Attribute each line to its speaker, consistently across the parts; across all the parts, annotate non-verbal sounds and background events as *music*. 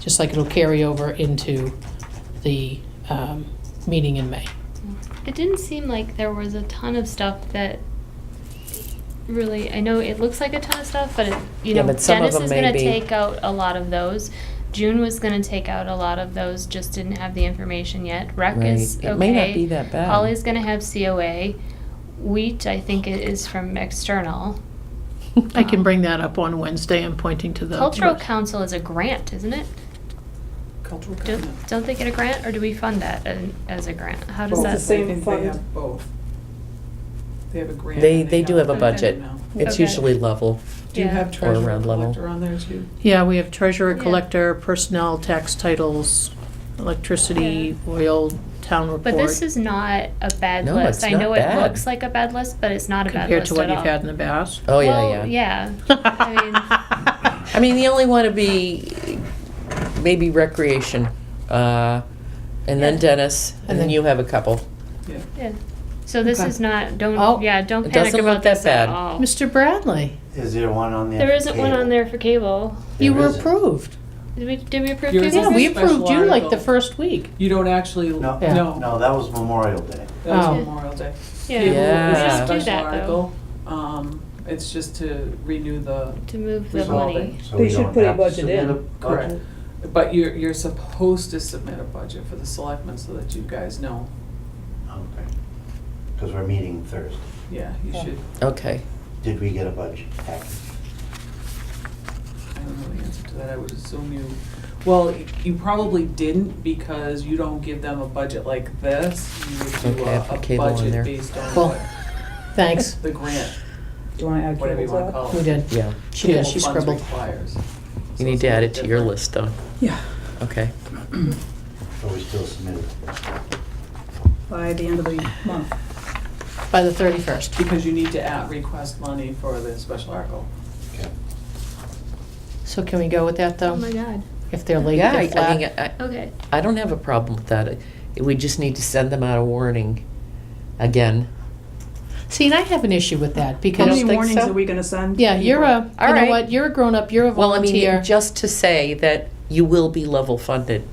Speaker 1: just like it'll carry over into the um, meeting in May.
Speaker 2: It didn't seem like there was a ton of stuff that really, I know it looks like a ton of stuff, but it, you
Speaker 3: Yeah,
Speaker 2: know,
Speaker 3: but some of
Speaker 2: Dennis
Speaker 3: them
Speaker 2: is
Speaker 3: may
Speaker 2: gonna
Speaker 3: be-
Speaker 2: take out a lot of those. June was gonna take out a lot of those, just didn't have the information yet. Rec is
Speaker 3: Right.
Speaker 2: okay.
Speaker 3: It may not be that bad.
Speaker 2: Holly's gonna have COA. Wheat, I think it is from external.
Speaker 1: I can bring that up on Wednesday, I'm pointing to the.
Speaker 2: Cultural Council is a grant, isn't it?
Speaker 4: Cultural
Speaker 2: Don't,
Speaker 4: Commons.
Speaker 2: don't they get a grant, or do we fund that an- as a grant? How does
Speaker 5: Both.
Speaker 2: that?
Speaker 5: It's the same
Speaker 4: I think
Speaker 5: fund.
Speaker 4: They have both. They have a grant.
Speaker 3: They,
Speaker 4: and
Speaker 3: they do have a
Speaker 2: Okay.
Speaker 3: budget.
Speaker 4: No.
Speaker 3: It's
Speaker 2: Okay.
Speaker 3: usually level.
Speaker 4: Do you
Speaker 2: Yeah.
Speaker 4: have
Speaker 3: Or
Speaker 4: treasurer
Speaker 3: around level.
Speaker 4: collector on there too?
Speaker 1: Yeah, we have treasurer,
Speaker 2: Yeah.
Speaker 1: collector, personnel, tax titles, electricity, oil, town report.
Speaker 2: But this is not a bad
Speaker 3: No,
Speaker 2: list.
Speaker 3: it's
Speaker 2: I
Speaker 3: not
Speaker 2: know
Speaker 3: bad.
Speaker 2: it looks like a bad list, but it's not a bad
Speaker 1: Compared
Speaker 2: list
Speaker 1: to what
Speaker 2: at
Speaker 1: you've
Speaker 2: all.
Speaker 1: had in the past.
Speaker 3: Oh, yeah,
Speaker 2: Well,
Speaker 3: yeah.
Speaker 2: yeah.
Speaker 1: *laughs*
Speaker 2: *laughs* I
Speaker 3: I mean, the only one would be maybe recreation, uh, and then
Speaker 2: Yeah.
Speaker 3: Dennis, and
Speaker 1: And
Speaker 3: then
Speaker 1: then-
Speaker 3: you have a couple.
Speaker 4: Yeah.
Speaker 2: Yeah. So this
Speaker 1: Okay.
Speaker 2: is not. Don't.
Speaker 1: Oh,
Speaker 2: yeah. Don't
Speaker 3: it
Speaker 2: panic
Speaker 3: doesn't
Speaker 2: about
Speaker 3: look that
Speaker 2: this at
Speaker 3: bad.
Speaker 2: all.
Speaker 1: Mr. Bradley,
Speaker 5: Is there one on there?
Speaker 2: There
Speaker 5: for
Speaker 2: isn't one
Speaker 5: cable?
Speaker 2: on there for cable.
Speaker 1: you
Speaker 5: There
Speaker 1: were
Speaker 5: isn't.
Speaker 1: approved.
Speaker 2: Did we? Did we approve
Speaker 4: Yours
Speaker 2: cable?
Speaker 1: Yeah, we
Speaker 4: a special
Speaker 1: approved you like the
Speaker 4: article.
Speaker 1: first week.
Speaker 4: You don't actually,
Speaker 5: No,
Speaker 4: no,
Speaker 1: Yeah.
Speaker 4: that
Speaker 5: no, that was Memorial Day.
Speaker 1: Oh.
Speaker 4: was Memorial Day.
Speaker 2: Yeah.
Speaker 4: Cable is a
Speaker 3: Yeah.
Speaker 2: We don't do
Speaker 4: special
Speaker 2: that though.
Speaker 4: article. Um, it's just to renew the,
Speaker 2: To move the money.
Speaker 4: Resolving.
Speaker 5: So
Speaker 6: They
Speaker 5: we
Speaker 6: should
Speaker 5: don't
Speaker 6: put a
Speaker 5: have to
Speaker 6: budget
Speaker 5: submit
Speaker 6: in.
Speaker 5: a budget?
Speaker 4: Correct. but you're, you're supposed to submit a budget for the selectmen so that you guys know.
Speaker 5: Okay. Because we're meeting Thursday.
Speaker 4: Yeah, you
Speaker 6: Yeah.
Speaker 4: should,
Speaker 3: Okay.
Speaker 5: Did we get a budget package?
Speaker 4: I don't know the answer to that. I would assume you, well, you probably didn't because you don't give them a budget like this. You would do
Speaker 3: Okay, I
Speaker 4: a,
Speaker 3: put
Speaker 4: a
Speaker 3: cable on there.
Speaker 4: budget based on
Speaker 1: Well,
Speaker 4: what,
Speaker 3: *laughs*
Speaker 4: *laughs*
Speaker 1: Thanks.
Speaker 4: the grant,
Speaker 6: Do you want to add
Speaker 4: whatever you
Speaker 6: cable
Speaker 4: wanna
Speaker 6: to that?
Speaker 4: call it.
Speaker 1: We did.
Speaker 3: Yeah.
Speaker 1: She did,
Speaker 4: Cable
Speaker 1: she
Speaker 4: funds
Speaker 1: scribbled.
Speaker 4: requires. So
Speaker 3: You need
Speaker 4: it's
Speaker 3: to
Speaker 4: a
Speaker 3: add it
Speaker 4: little
Speaker 3: to your
Speaker 4: different.
Speaker 3: list, though.
Speaker 6: Yeah,
Speaker 3: Okay.
Speaker 5: Or we still submitted?
Speaker 6: by the end of the month.
Speaker 1: By the 31st.
Speaker 4: Because you need to at request money for the special article.
Speaker 5: Okay.
Speaker 1: So can we go with that, though?
Speaker 2: Oh my god.
Speaker 1: If they're late,
Speaker 3: Yeah,
Speaker 1: they're
Speaker 3: I, I mean,
Speaker 1: flat.
Speaker 3: I,
Speaker 2: Okay.
Speaker 3: I don't have a problem with that. I- We just need to send them out a warning again.
Speaker 1: See, and I have an issue with that,
Speaker 6: How
Speaker 1: because.
Speaker 6: many
Speaker 3: think
Speaker 6: warnings
Speaker 3: so?
Speaker 6: are we going to send?
Speaker 1: Yeah, you're
Speaker 6: people?
Speaker 1: a, you
Speaker 3: All
Speaker 1: know
Speaker 3: right.
Speaker 1: what, you're a grown-up, you're a
Speaker 3: Well, I mean,
Speaker 1: volunteer.
Speaker 3: just to say that you will be level funded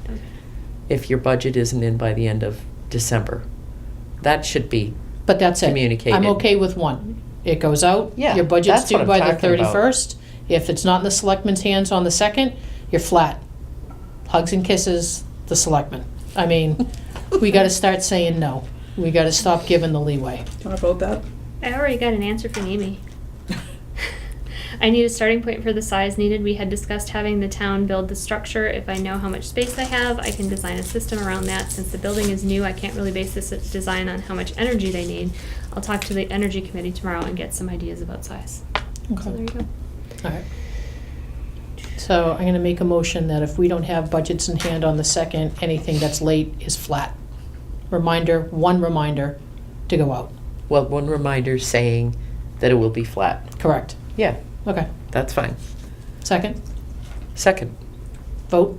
Speaker 3: if your budget isn't in by the end of December. That should be,
Speaker 1: But that's it.
Speaker 3: communicated.
Speaker 1: I'm okay with one. It goes out,
Speaker 3: Yeah,
Speaker 1: your budget's
Speaker 3: that's what
Speaker 1: due
Speaker 3: I'm
Speaker 1: by the
Speaker 3: talking about.
Speaker 1: 31st. If it's not in the selectmen's hands on the 2nd, you're flat. Hugs and kisses, the selectmen. I mean, we gotta start saying no. We gotta stop giving the leeway.
Speaker 6: Do you want to vote that?
Speaker 2: I already got an answer from Amy. I need a starting point for the size needed. We had discussed having the town build the structure. If I know how much space I have, I can design a system around that. Since the building is new, I can't really base this design on how much energy they need. I'll talk to the energy committee tomorrow and get some ideas about size. So there you go.
Speaker 1: All right. So I'm gonna make a motion that if we don't have budgets in hand on the second, anything that's late is flat. Reminder, one reminder to go out,
Speaker 3: well, one reminder saying that it will be flat.
Speaker 1: correct?
Speaker 3: Yeah,
Speaker 1: Okay,
Speaker 3: that's fine.
Speaker 1: second,
Speaker 3: Second.
Speaker 2: *laughs*
Speaker 1: vote.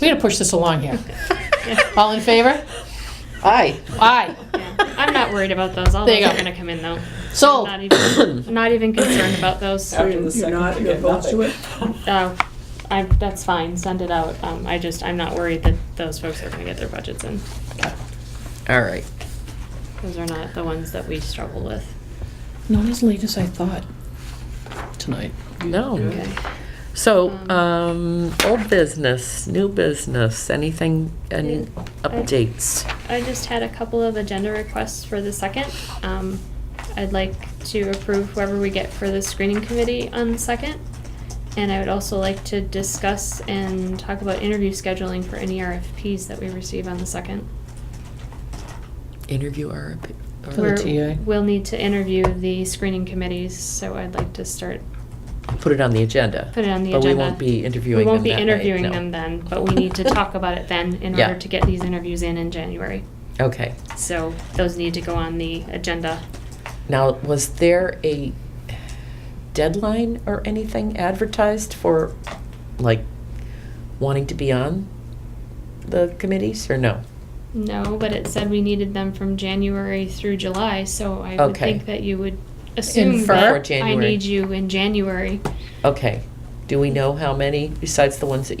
Speaker 1: We gotta push this along here. *laughs* All in favor?
Speaker 3: Aye.
Speaker 1: Aye,
Speaker 2: Yeah. I'm not worried about those. All
Speaker 1: There you
Speaker 2: those are
Speaker 1: go.
Speaker 2: gonna come in though.
Speaker 1: sold.
Speaker 2: Not even, I'm not even concerned about those.
Speaker 4: After the
Speaker 6: You're
Speaker 4: second,
Speaker 6: not-
Speaker 4: you
Speaker 6: you're
Speaker 4: get
Speaker 6: opposed to
Speaker 4: nothing. *laughs*
Speaker 2: Oh, I, that's fine. Send it out. Um, I just, I'm not worried that those folks are gonna get their budgets in.
Speaker 3: All right.
Speaker 2: Those are not the ones that we struggle with.
Speaker 1: *coughs* Not as late as I thought tonight.
Speaker 3: No.
Speaker 4: Okay.
Speaker 3: So,
Speaker 2: Um,
Speaker 3: um, old business, new business, anything, any
Speaker 2: Mm, I-
Speaker 3: updates?
Speaker 2: I just had a couple of agenda requests for the second. Um, I'd like to approve whoever we get for the screening committee on the second. And I would also like to discuss and talk about interview scheduling for any RFPs that we receive on the second.
Speaker 3: Interview RFP?
Speaker 1: For the
Speaker 2: Where
Speaker 1: TA.
Speaker 2: We'll need to interview the screening committees, so I'd like to start,
Speaker 3: Put it on the agenda.
Speaker 2: put it on the agenda.
Speaker 3: But we won't be interviewing
Speaker 2: We
Speaker 3: them
Speaker 2: won't
Speaker 3: that
Speaker 2: be
Speaker 3: night,
Speaker 2: interviewing
Speaker 3: no.
Speaker 2: them then, but we need to talk about it then in
Speaker 3: *laughs* Yeah.
Speaker 2: order to get these interviews in in January.
Speaker 3: Okay.
Speaker 2: So those need to go on the agenda.
Speaker 3: Now, was there a deadline or anything advertised for, like, wanting to be on the committees, or no?
Speaker 2: No, but it said we needed them from January through July, so I would
Speaker 3: Okay.
Speaker 2: think that you would assume
Speaker 1: Infer.
Speaker 3: Before
Speaker 2: that I
Speaker 3: January.
Speaker 2: need you in January.
Speaker 3: Okay. Do Do we know how many, besides the ones that you?